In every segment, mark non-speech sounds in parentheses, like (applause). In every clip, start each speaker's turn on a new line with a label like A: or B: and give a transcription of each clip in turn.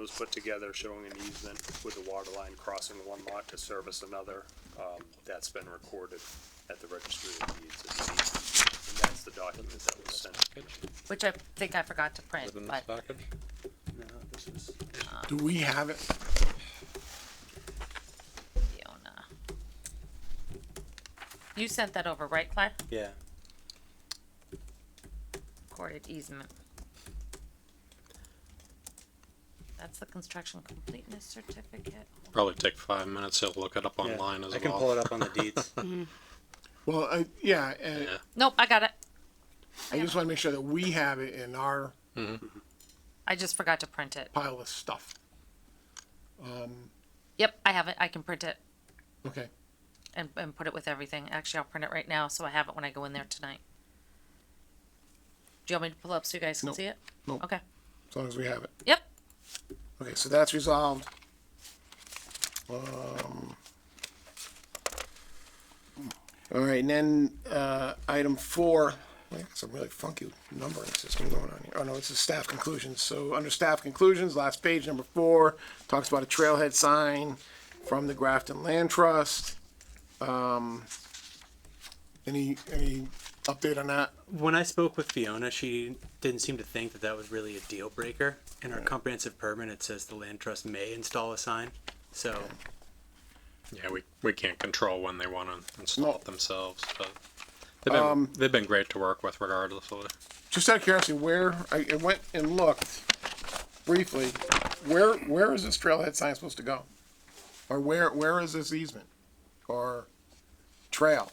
A: was put together showing an easement with the water line crossing one lot to service another. Um, that's been recorded at the registry of deeds. as an easement. And that's the document that was sent.
B: which I think I forgot to print,
C: Within this
B: but um,
C: package?
D: Do we have it?
B: Fiona. You sent that over, right, Claire?
E: Yeah,
B: Recorded easement. That's the construction completeness certificate.
C: Probably take five minutes, he'll look it up
E: yeah.
C: online as well.
E: I can pull it up on the
C: (laughs)
E: deeds.
D: Well, I, yeah, and
C: Yeah.
B: Nope, I got it.
D: I just want to make sure that we have it in our
B: I just forgot to print it.
D: pile of stuff.
B: Yep, I have it. I can print it
D: Okay,
B: and, and put it with everything. Actually, I'll print it right now, so I have it when I go in there tonight. Do you want me to pull up so you guys can
D: Nope.
B: see it?
D: Nope.
B: Okay.
D: as long as we have it.
B: Yep.
D: Okay, so that's resolved. Um, all right, and then uh, item four. Man, some really funky numbering system going on here. Oh no, it's the staff conclusions. So under staff conclusions, last page number four talks about a trailhead sign from the Grafton Land Trust. Um, any any update on that?
E: When I spoke with Fiona, she didn't seem to think that that was really a deal breaker. In our comprehensive permit, it says the land trust may install a sign. So
C: Yeah, we, we can't control when they wanna install
D: No. Um,
C: it themselves, but they've been, they've been great to work with regardless of it.
D: just out of curiosity, where I, I went and looked briefly, where where is this trailhead sign supposed to go, or where where is this easement or trail?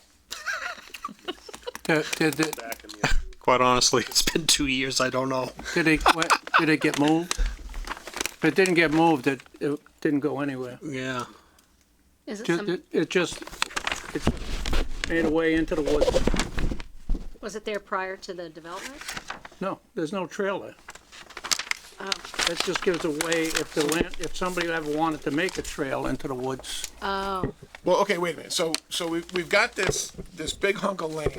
F: Did, did it,
A: Back in the,
C: Quite honestly, (laughs) it's been two years, I don't know.
F: did it, what, did it get moved? If it didn't get moved, it, it didn't go anywhere.
C: Yeah.
G: Is it
F: Just,
G: some,
F: it, it just, it just made a way into the woods.
G: was it there prior to the development?
F: No, there's no trail there. That just gives a way, if the land, if somebody ever wanted to make a trail into the woods,
G: Oh,
D: Well, okay, wait a minute. So so we we've got this this big hunk of land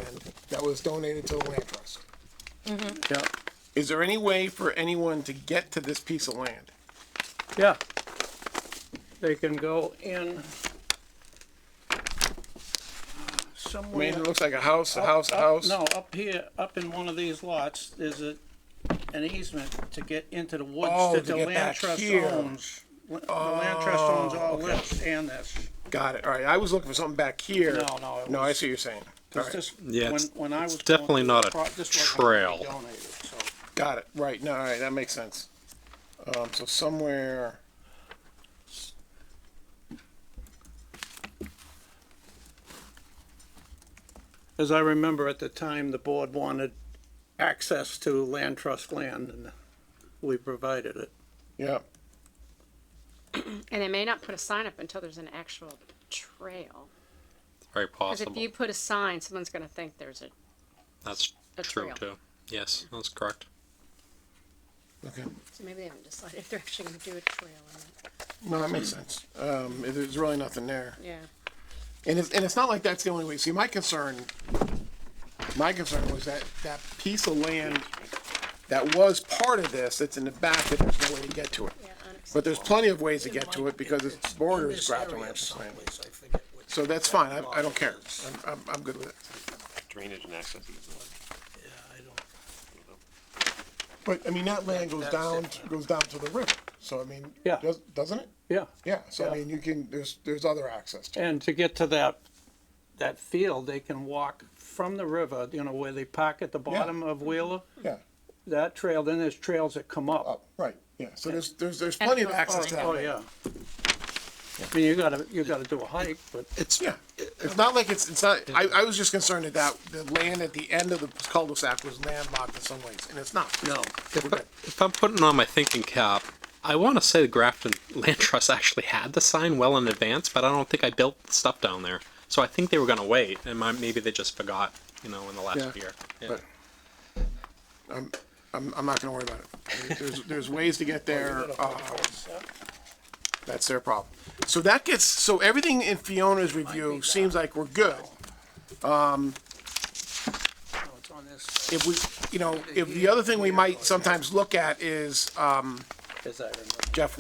D: that was donated to the land trust.
F: yeah,
D: Is there any way for anyone to get to this piece of land?
F: yeah. They can go in uh,
D: I
F: somewhere.
D: mean, it looks like a house, a
F: Up-
D: house, a
F: up-
D: house.
F: Oh, No, up here, up in one of these lots, there's a, an easement to get into the
D: Oh,
F: woods
D: to
F: that the
D: get back
F: land trust
D: here. Oh,
F: owns. La- The land trust owns all this and this.
D: Got it. All right. I was looking for something back here.
F: No, no, it
D: No, I
F: was-
D: see what you're saying. All
F: 'Cause
D: right.
F: this-
C: Yeah, it's-
F: when- when I
C: it's
F: was going
C: definitely
F: through
C: not
F: the
C: a
F: pro- this wasn't gonna be
C: trail.
F: donated, so
D: Got it. Right. No, all right. That makes sense. Um, so somewhere.
F: As I remember at the time, the board wanted access to land trust land and we provided it.
D: Yeah.
G: and they may not put a sign up until there's an actual trail.
C: Very
G: Cause if
C: possible.
G: you put a sign, someone's gonna think there's a,
C: That's
G: a
C: true
G: trail.
C: too. Yes, that's correct.
D: Okay.
G: so maybe they haven't decided if they're actually gonna do a trail or not.
D: No, that makes sense. Um, it- there's really nothing there,
G: Yeah.
D: and it's and it's not like that's the only way. See, my concern, my concern was that that piece of land that was part of this that's in the back that there's no way to get to it.
G: Yeah, unaccessible.
D: But there's plenty of ways to get to it because its borders Grafton Ranch land. So that's fine. I, I don't care. I'm, I'm, I'm good with it.
H: drainage and access easement.
D: But I mean, that land goes down goes down to the river. So I mean,
F: Yeah.
D: does, doesn't it?
F: Yeah.
D: Yeah. So I
F: Yeah.
D: mean, you can there's there's other access to it.
F: And to get to that, that field, they can walk from the river, you know, where they park at the bottom of Wheeler,
D: Yeah.
F: that trail, then there's trails that come up.
D: Up. Right. Yeah. So there's there's there's plenty of access to that.
F: Oh,
D: land.
F: yeah. I mean, you gotta, you gotta do a hike, but
C: It's,
D: Yeah, it's not like it's, it's not, I, I was just concerned that that, the land at the end of the cul-de-sac was landlocked in some ways, and it's not.
F: no.
D: We're good.
C: if I'm putting on my thinking cap, I want to say the Grafton Land (laughs) Trust actually had the sign well in advance, but I don't think I built the stuff down there. So I think they were going to wait, and my, maybe they just forgot, you know, in the last
D: Yeah,
C: year. Yeah.
D: but- I'm, I'm not gonna worry about it. There's, there's ways to get there, uh, that's their problem. So that gets, so everything in Fiona's review seems like we're good. Um,
F: No, it's on this side,
D: If we, you know, if the other thing we might sometimes look at is, um,
F: as I remember.
D: Jeff,